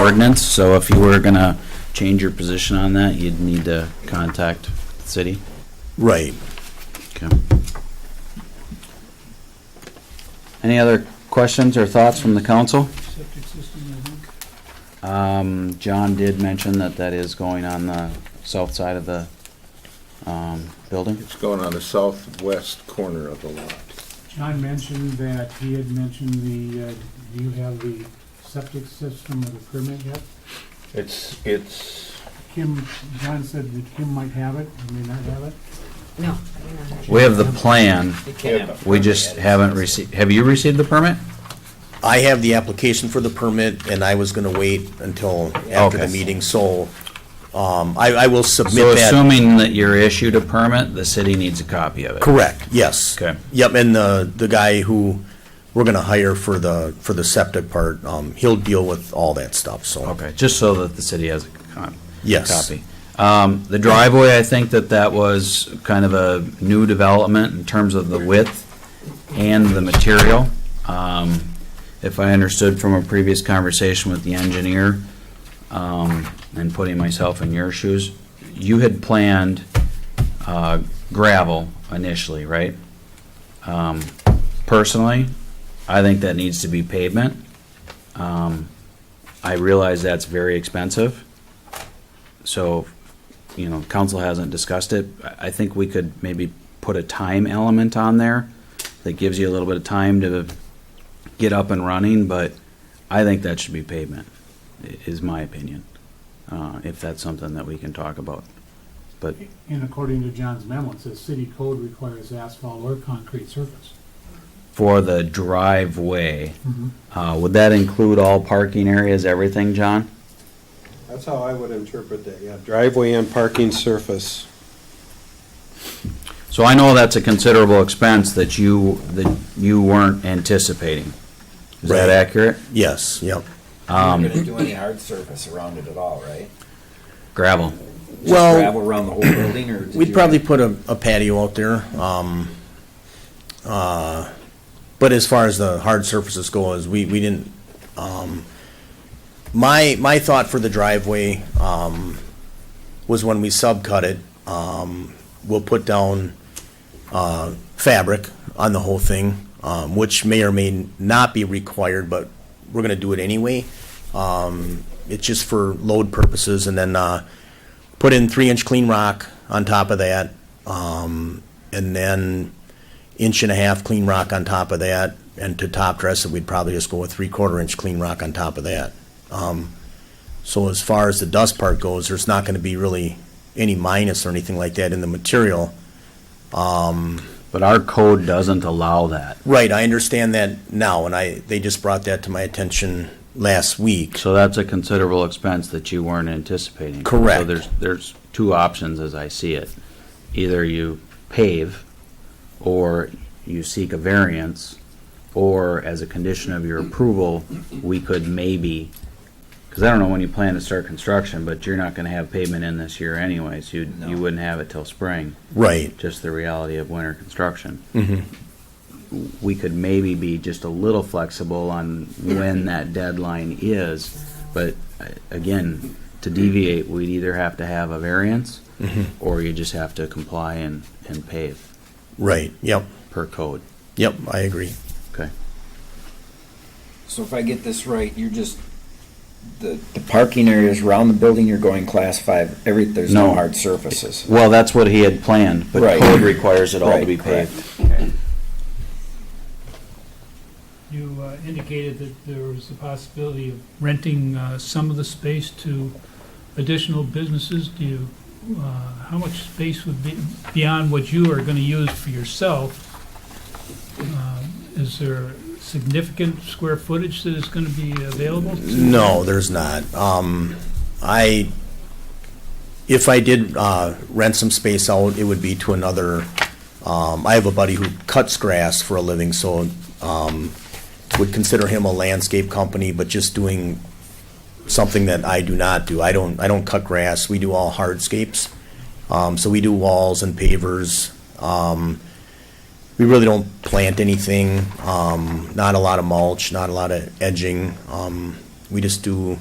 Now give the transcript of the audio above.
ordinance, so if you were gonna change your position on that, you'd need to contact the city. Right. Okay. Any other questions or thoughts from the council? Septic system, I think. Um, John did mention that that is going on the south side of the, um, building. It's going on the southwest corner of the lot. John mentioned that, he had mentioned the, uh, do you have the septic system or the permit yet? It's, it's, Kim, John said that Kim might have it, he may not have it. No. I don't know. We have the plan, You can't have- we just haven't received, have you received the permit? I have the application for the permit, and I was gonna wait until after the Okay. meeting, so, um, I, I will So submit that. assuming that you're issued a permit, the city needs a copy of it. Correct, yes. Okay. Yep, and the, the guy who we're gonna hire for the, for the septic part, um, he'll deal with all that stuff, so. Okay, just so that the city has a con- Yes. copy. Um, The driveway, I think that that was kind of a new development in terms of the width and the material. Um, If I understood from a previous conversation with the engineer, um, and putting myself in your shoes, you had planned uh, gravel initially, right? Um, Personally, I think that needs to be pavement. Um, I realize that's very expensive. So, you know, council hasn't discussed it. I, I think we could maybe put a time element on there that gives you a little bit of time to get up and running, but I think that should be pavement, i- is my opinion. Uh, if that's something that we can talk about. But, And according to John's memo, it says city code requires asphalt or concrete surface. for the driveway, uh, would that include all parking areas, everything, John? That's how I would interpret that, yeah. Driveway and parking surface. So I know that's a considerable expense that you, that you weren't anticipating. Is that Right. accurate? Yes, yep. You're Um, not gonna do any hard surface around it at all, right? Gravel. Just Well- Gravel around the whole building, or? did Oh. We'd you- probably put a, a patio out there, um, uh, but as far as the hard surfaces go, is we, we didn't, um, my, my thought for the driveway, um, was when we subcut it, um, we'll put down, uh, fabric on the whole thing, um, which may or may not be required, but we're gonna do it anyway. Um, it's just for load purposes, and then, uh, put in three inch clean rock on top of that, um, and then inch and a half clean rock on top of that, and to top dress it, we'd probably just go with three quarter inch clean rock on top of that. Um, so as far as the dust part goes, there's not gonna be really any minus or anything like that in the material. But our code doesn't allow that. Right, I understand that now, and I, they just brought that to my attention last week. So that's a considerable expense that you weren't anticipating. Correct. So there's, there's two options as I see it. Either you pave, or you seek a variance, or as a condition of your approval, we could maybe, because I don't know when you plan to start construction, but you're not gonna have pavement in this year anyways. You, you No. wouldn't have it till spring, Right, just the reality of winter construction. we could maybe be just a little flexible on when that deadline is. But uh, again, to deviate, we'd either have to have a variance Mm-hmm. or you just have to comply and, and pave right, yep, per code. yep, I agree. Okay. So if I get this right, you're just, the, the parking areas around the building, you're going class five, every, there's No. no hard surfaces. Well, that's what he had planned, but Right. code requires it all to Right, be correct. paved. You uh, indicated that there was the possibility of renting uh, some of the space to additional businesses. Do you, uh, how much space would be beyond what you are going to use for yourself? Um, Is there significant square footage that is going to be available? to- No, there's not. Um, I, if I did, uh, rent some space out, it would be to another, um, I have a buddy who cuts grass for a living, so, um, would consider him a landscape company, but just doing something that I do not do. I don't, I don't cut grass. We do all hardscapes. Um, so we do walls and pavers. Um, we really don't plant anything, um, not a lot of mulch, not a lot of edging. Um, we just do